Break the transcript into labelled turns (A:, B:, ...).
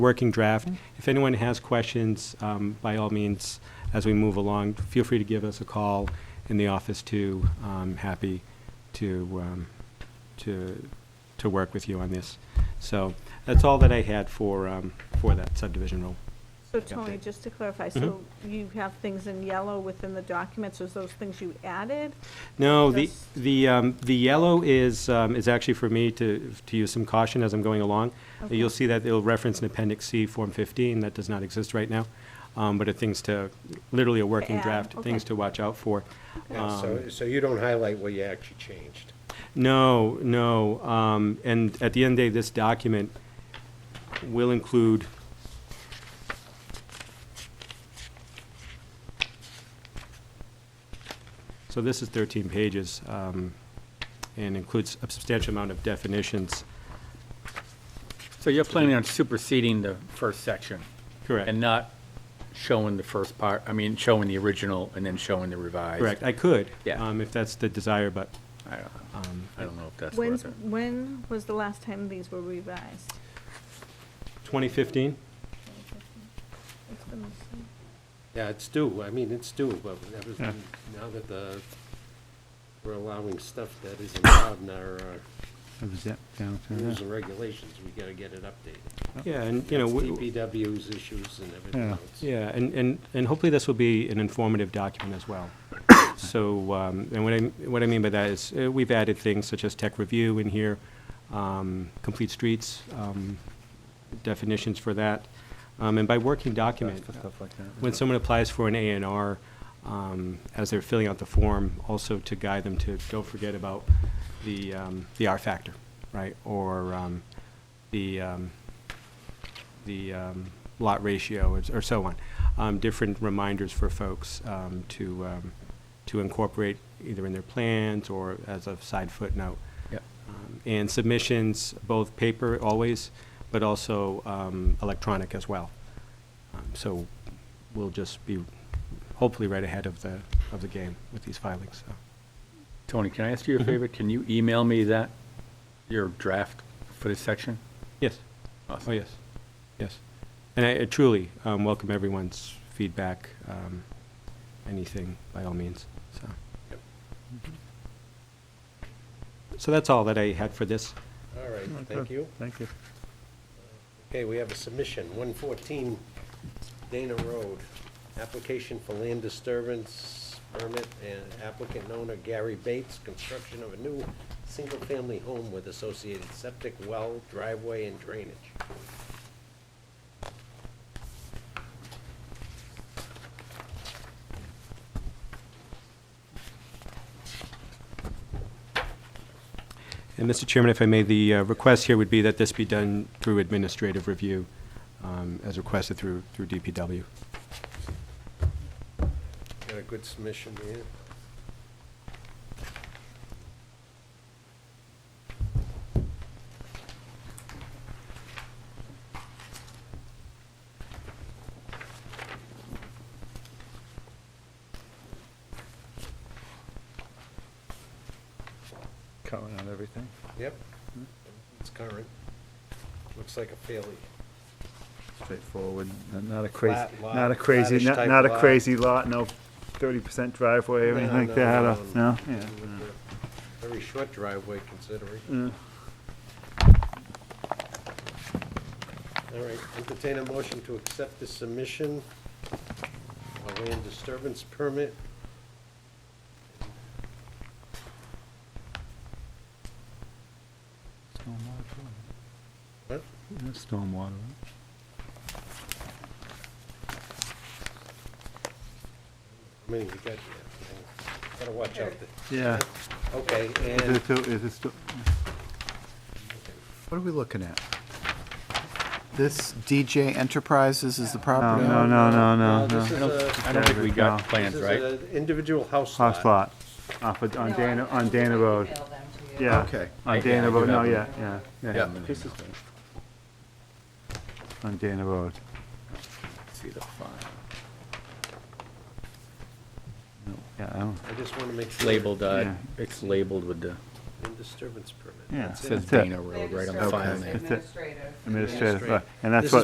A: working draft. If anyone has questions, um, by all means, as we move along, feel free to give us a call in the office too. I'm happy to, um, to, to work with you on this. So that's all that I had for, um, for that subdivision rule.
B: So
A: Yeah.
B: Tony, just to clarify, so
C: Mm-hmm.
B: you have things in yellow within the documents, is those things you added?
A: No, the,
B: Just-
A: the, um, the yellow is, um, is actually for me to, to use some caution as I'm going along.
B: Okay.
A: You'll see that it'll reference an Appendix C, Form 15, that does not exist right now, um, but it things to, literally a working
B: add,
A: draft, things
B: okay.
A: to watch out for.
D: Yeah, So,
A: Um,
D: so you don't highlight what you actually changed.
A: No, no, um, and at the end of the day, this document will include So this is 13 pages, um, and includes a substantial amount of definitions.
C: So you're planning on superseding the first section?
A: Correct.
C: And not showing the first part, I mean, showing the original and then showing the revised?
A: Correct, I could.
C: Yeah.
A: um, If that's the desire, but,
C: I don't know.
A: um,
C: I don't know if that's
B: When,
C: worth it.
B: when was the last time these were revised?
A: 2015?
B: It's been the same.
D: Yeah, it's due, I mean, it's due, but everything, now that the, we're allowing stuff that isn't allowed in our uh,
E: That was it, down to
D: rules
E: that.
D: and regulations, we gotta get it updated.
A: Yeah, and, you know,
D: It's
A: we-
D: DPW's issues and everything
E: Yeah.
D: else.
A: Yeah, and, and, and hopefully this will be an informative document as well. So, um, and what I, what I mean by that is, uh, we've added things such as tech review in here, um, complete streets, um, definitions for that. Um, and by working document,
E: Stuff like that.
A: when someone applies for an A and R, um, as they're filling out the form, also to guide them to, don't forget about the, um, the R factor, right? Or, um, the, um, the, um, lot ratio or- or so on. Um, different reminders for folks, um, to, um, to incorporate either in their plans or as a side footnote.
C: Yep.
A: Um, And submissions, both paper always, but also, um, electronic as well. Um, So we'll just be hopefully right ahead of the, of the game with these filings, so.
C: Tony, can I ask
E: Mm-hmm.
C: you a favor? Can you email me that, your draft for this section?
A: Yes, oh, yes, yes. And I I truly um, welcome everyone's feedback, um, anything, by all means, so.
D: Yep.
A: So that's all that I had for this.
D: All right,
E: Good,
D: thank you.
E: Thank you.
D: Okay, we have a submission, 114 Dana Road, application for land disturbance permit and applicant and owner Gary Bates, construction of a new single-family home with associated septic well, driveway, and drainage.
A: And Mr. Chairman, if I may, the uh, request here would be that this be done through administrative review, um, as requested through, through DPW.
D: Got a good submission here.
E: Covering on everything.
D: Yep, it's current. Looks like a fairly
E: Straightforward, Not- not a crazy,
D: Flat lot,
E: not a crazy,
D: flattish
E: not
D: type
E: not a
D: lot.
E: crazy lot, no thirty percent driveway or
D: No,
E: anything
D: no,
E: like that,
D: no,
E: uh, no?
D: no.
E: Yeah.
D: Very short driveway considering.
E: Mm.
D: All right, entertain a motion to accept the submission of a land disturbance permit. What?
E: Stormwater.
D: I mean, you got, yeah, gotta watch out. there.
E: Yeah.
D: Okay,
E: Is
D: and
E: it, to- is it, sto-
F: What are we looking at? This DJ Enterprises is the property?
E: No, no, no,
D: No,
E: no,
D: this
C: I
D: is
E: no.
C: don't,
D: a-
C: I don't think we got
E: No.
C: plans,
D: This
C: right?
D: is an individual house lot.
E: House lot, off of, on
G: No, I-
E: Dana,
G: I
E: on
G: can
E: Dana
G: email
E: Road.
G: them to you.
E: Yeah.
F: Okay.
C: Yeah,
E: On
C: I
E: Dana
C: do
E: Road, no,
C: have
E: yeah, yeah, yeah.
C: Yeah.
E: This is- On Dana Road.
C: See the file.
E: Yeah, I don't,
D: I just wanna make sure.
C: Labeled, uh,
E: Yeah.
C: it's labeled with the,
D: Land disturbance permit.
E: yeah.
D: That's it.
C: says
E: that's it.
C: Dana Road right on
G: They're
C: the file
G: just
C: name.
E: That's it.
G: Administrative.
E: Administrative,
D: Administrative.
E: right. and that's
D: This
E: what.
D: is